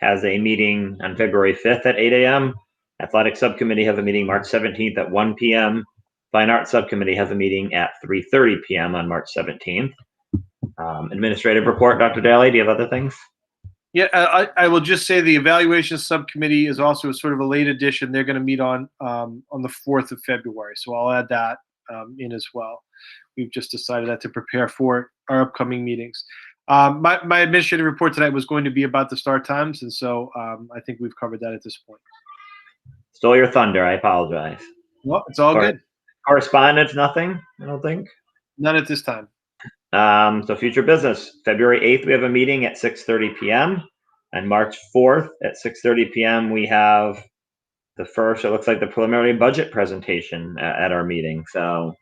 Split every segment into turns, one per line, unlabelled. has a meeting on February 5th at eight AM. Athletic Subcommittee have a meeting March 17th at one PM. Fine Arts Subcommittee has a meeting at 3:30 PM on March 17th. Um, Administrative report, Dr. Daly, do you have other things?
Yeah, I, I I will just say the evaluation subcommittee is also sort of a late addition. They're going to meet on, um, on the 4th of February. So I'll add that, um, in as well. We've just decided that to prepare for our upcoming meetings. Um, my, my administrative report tonight was going to be about the start times. And so, um, I think we've covered that at this point.
Stole your thunder, I apologize.
Well, it's all
All right.
good.
Correspondence, nothing, I don't think.
None at this time.
Um, so future business, February 8th, we have a meeting at 6:30 PM. And March 4th at 6:30 PM, we have the first, it looks like the preliminary budget presentation a- at our meeting. So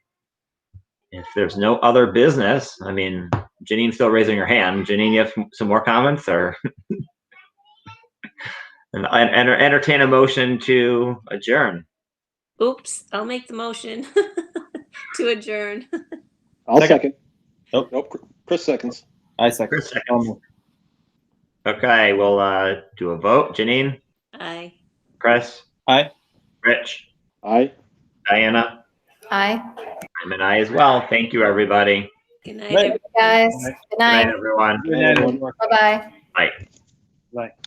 if there's no other business, I mean, Janine's still raising her hand. Janine, you have some- some more comments or? And I- and entertain a motion to adjourn.
Oops, I'll make the motion to adjourn.
I'll
Second.
second.
Nope.
Nope. Chris seconds.
I second.
Chris seconds. Okay, we'll, uh, do a vote. Janine,
Aye.
Chris?
Aye.
Rich?
Aye.
Diana,
Hi,
I'm an I as well. Thank you, everybody.
Good
Right.
night, everyone.
guys. Good
Good night,
night.
everyone.
Aye.
Bye-bye.
Right.